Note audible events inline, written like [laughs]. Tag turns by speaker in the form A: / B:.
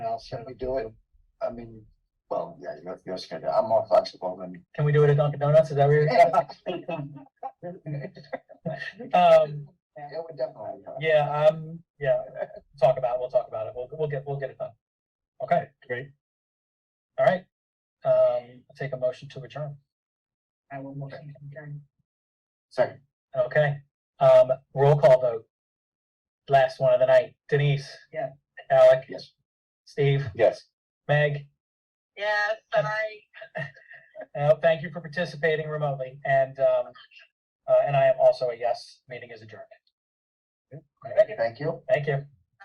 A: else, can we do it? I mean, well, yeah, you're, you're scared, I'm more flexible [laughs] than.
B: Can we do it at Dunkin' Donuts? Is that where
A: Yeah,
B: you're? Um,
A: we definitely. uh,
B: yeah, um, yeah, talk about, we'll talk about it. We'll, we'll get, we'll get it done. Okay,
C: Great.
B: all right. Um, I'll take a motion to adjourn.
D: I will motion to adjourn.
A: Second,
B: Okay, um, roll call vote. Last one of the night. Denise?
D: Yeah.
B: Alec?
A: yes,
B: Steve?
A: yes.
B: Meg?
D: Yes,
B: And-
D: I.
B: [laughs] Uh, thank you for participating remotely and, um, uh, and I am also a yes. Meeting is adjourned. All right,
A: Thank you.
B: Thank you.